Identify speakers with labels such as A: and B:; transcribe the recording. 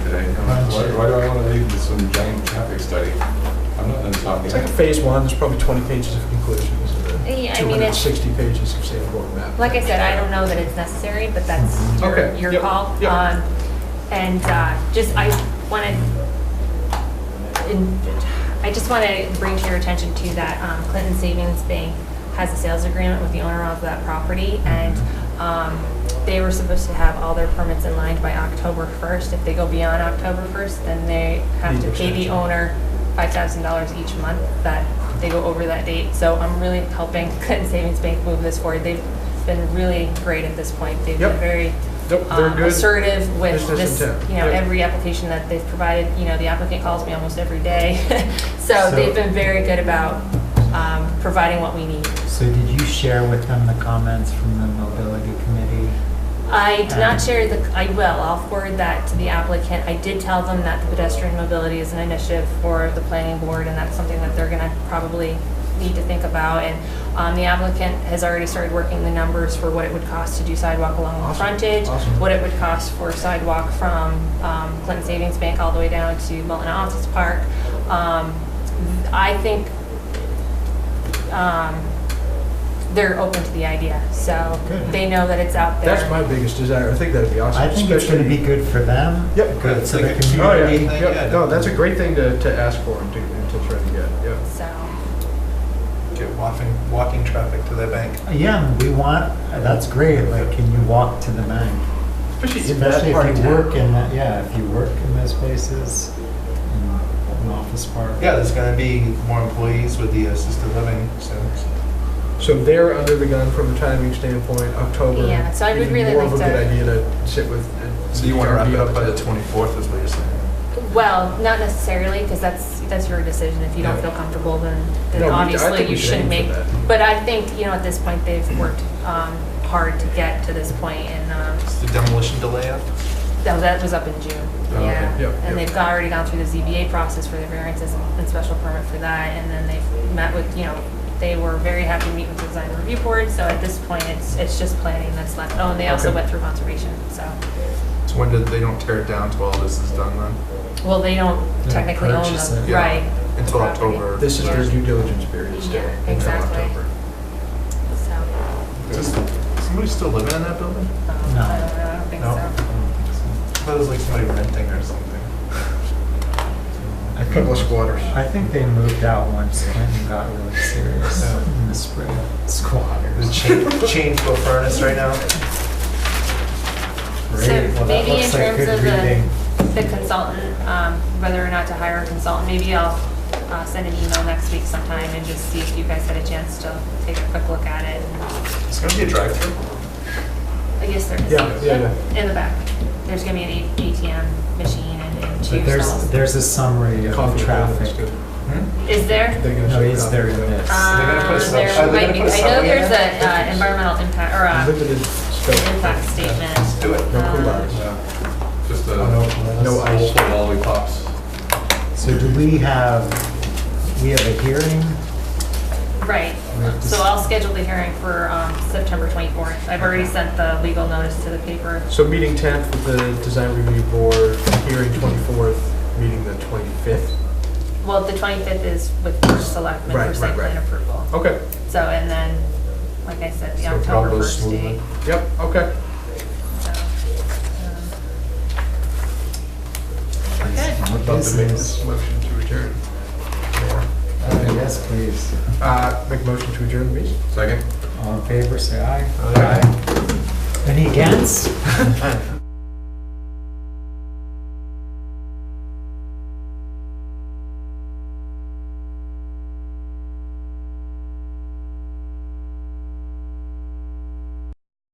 A: it. I'm like, Why why do I want to leave this some giant traffic study? I'm not done talking.
B: It's like a phase one, there's probably 20 pages of conclusions and
C: Yeah,
B: then
C: I mean, it's-
B: 260 pages of sample map.
C: Like I said, I don't know that it's necessary, but that's your,
B: Mm-hmm. Okay,
C: your
B: yep,
C: call.
B: yep.
C: Um, And uh, just, I wanted, in- I just want to bring to your attention too that um, Clinton Savings Bank has a sales agreement with the owner of that property
B: Mm-hmm.
C: and um, they were supposed to have all their permits in line by October 1st. If they go beyond October 1st, then they have
B: Need
C: to pay the
B: extension.
C: owner $5,000 each month that they go over that date. So I'm really helping Clinton Savings Bank move this forward. They've been really great at this point. They've been
B: Yep.
C: very
B: Nope, they're
C: um,
B: good.
C: assertive with
B: Business
C: this,
B: intent.
C: you know,
B: Yep.
C: every application that they've provided. You know, the applicant calls me almost every day. So
D: So-
C: they've been very good about um, providing what we need.
D: So did you share with them the comments from the mobility committee?
C: I did
B: Uh-huh.
D: Um,
C: not share the, I will, I'll forward that to the applicant. I did tell them that the pedestrian mobility is an initiative for the planning board, and that's something that they're gonna probably need to think about. And um, the applicant has already started working the numbers for what it would cost to do sidewalk along the
B: Awesome,
C: frontage,
B: awesome.
C: what it would cost for sidewalk from um, Clinton Savings Bank all the way down to Milton Office Park. Um, I think um, they're open to the idea, so
B: Good.
C: they know that it's out there.
B: That's my biggest desire, I think that'd be awesome.
D: I think it's going to be
B: especially-
D: good for them.
B: Yep.
D: Good for the
B: Oh, yeah,
D: community.
B: yeah, no, that's a great thing to, to ask for and to, and to try to get, yeah.
C: So.
E: Get walking, walking traffic to the bank.
D: Yeah, we want, that's great, like, can you walk to the bank?
B: Especially in that
D: Especially
B: part of
D: if you
B: town.
D: work in, that. yeah, if you work in those places, in an office park.
E: Yeah, there's gonna be more employees with the assisted living, so.
B: So they're under the gun from a timing standpoint, October.
C: Yeah, so I would
B: even
C: really
B: more of
C: like
B: a good
C: to-
B: idea to sit with. and
E: So you wanna wrap
B: be
E: it
B: on
E: up by the
B: table.
E: 24th is what you're saying?
C: Well, not necessarily, because that's, that's your decision. If you don't
B: Yeah.
C: feel comfortable, then,
B: No,
C: then
B: we- I
C: obviously
B: think we
C: you
B: should
C: shouldn't
B: aim
C: make.
B: for that.
C: But I think, you know, at this point, they've worked um, hard to get to this point, and um,
E: Is the demolition delay up?
C: that that was up in June.
E: Oh,
C: Yeah.
B: okay. Yep,
C: And
B: yep.
C: they've got- already gone through the ZBA process for the variances and special permit for that, and then they've met with, you know, they were very happy to meet with the design review board, so at this point, it's, it's just planning that's left. Oh, and they also
B: Okay.
C: went through conservation, so.
E: So when did, they don't tear it down till all this is done then?
C: Well, they don't
D: They
C: technically own
D: purchase
C: them,
D: it.
E: Yeah.
C: right?
E: Until
C: Property.
E: October.
B: This is their
C: Yeah.
B: due diligence period still.
C: Yeah,
B: until
C: exactly.
B: October.
C: So,
E: Does somebody still living in that building?
C: um,
D: No.
C: I don't know, I don't think
E: No.
C: so.
E: I thought it was like somebody renting or something.
D: I think-
B: Couple of squatters.
D: I think they moved out once Clinton got really serious in the spring.
E: There's a
D: Squatters.
E: chain, chain to a furnace right now.
D: Great.
C: So
D: Well, that
C: maybe in
D: looks like
C: terms
D: good
C: of the,
D: reading.
C: the consultant, um, whether or not to hire a consultant, maybe I'll, uh, send an email next week sometime and just see if you guys had a chance to take a quick look at it.
E: It's gonna be a drive-through.
C: I guess there is.
B: Yeah, yeah, yeah.
C: In the back, there's gonna be an ATM machine and and two
D: But there's,
C: stalls.
D: there's a summary of
B: Coffee
D: the
B: traffic.
D: traffic.
E: Hmm?
C: Is there?
D: No, is there in this?
E: They're gonna put a
C: Uh,
E: sub-
C: there
E: are they
C: might
E: gonna
C: be, I
E: put a
C: know
E: subway in
C: there's a,
E: there?
C: uh, environmental impact, or a
B: Limited scope.
C: impact statement.
E: Let's do it.
B: No cool
C: Um,
B: bars.
A: Just a,
D: no,
A: no
B: no
A: ice
B: ice.
A: lollipops.
D: So do we have, we have a hearing?
C: Right,
D: We have to
C: so
D: s-
C: I'll schedule the hearing for um, September 24th. I've already sent the legal notice to the paper.
B: So meeting 10th with the design review board, hearing 24th, meeting the 25th.
C: Well, the 25th is with first selectmen
B: Right,
C: for
B: right,
C: site plan
B: right.
C: approval.
B: Okay,
C: So, and then, like I said, the
E: So
C: October
E: Bravo's
C: 1st date.
E: movement.
B: yep, okay.
C: so, um, we're good.
D: What
B: About to make
D: business?
B: this motion to adjourn.
D: Uh, Yes, please.
B: Uh, Make motion to adjourn, please.
A: Second?
D: All in favor, say aye.
E: Aye.
D: Any against?